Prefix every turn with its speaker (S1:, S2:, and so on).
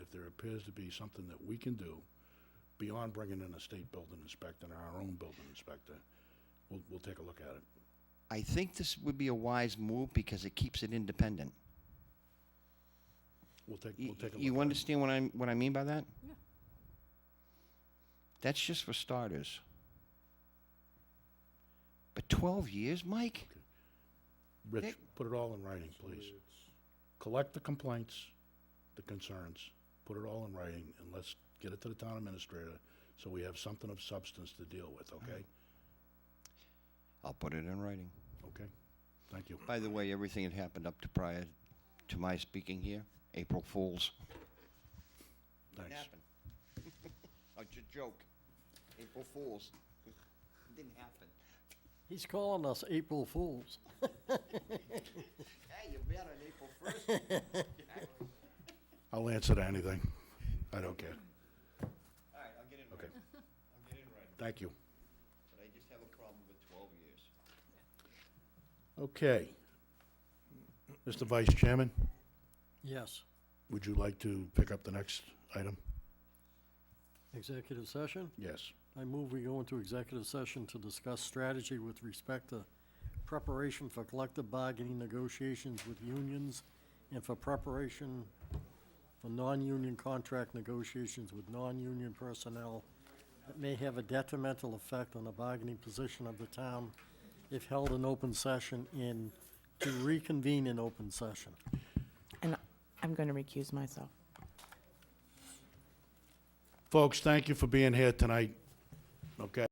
S1: if there appears to be something that we can do beyond bringing in a state building inspector and our own building inspector, we'll, we'll take a look at it.
S2: I think this would be a wise move because it keeps it independent.
S1: We'll take,
S2: Y-
S1: we'll take a look.
S2: You
S1: at it.
S2: understand what I'm, what I mean by that?
S3: Yeah.
S2: That's just for starters. But twelve years, Mike?
S1: Rich,
S2: Nick?
S1: put it all in writing, please. Collect the complaints, the concerns, put it all in writing, and let's get it to the town administrator, so we have something of substance to deal with,
S2: Uh-huh.
S1: okay?
S2: I'll put it in writing.
S1: Okay? Thank you.
S2: By the way, everything that happened up to prior to my speaking here, April Fools.
S1: Thanks.
S2: Oh, A j- joke. April Fools. Didn't happen.
S4: He's calling us April Fools.
S2: Hey, you bet on April first.
S1: I'll answer to anything. I don't care.
S2: All right, I'll get it in
S1: Okay.
S2: writing. I'll get it in writing,
S1: Thank you.
S2: but I just have a problem with twelve years.
S1: Okay. Mr. Vice Chairman,
S4: Yes,
S1: would you like to pick up the next item?
S4: executive session.
S1: Yes.
S4: I move we go into executive session to discuss strategy with respect to preparation for collective bargaining negotiations with unions and for preparation for non-union contract negotiations with non-union personnel that may have a detrimental effect on the bargaining position of the town if held in open session and to reconvene in open session.
S3: And I'm going to recuse myself.
S1: Folks, thank you for being here tonight, okay?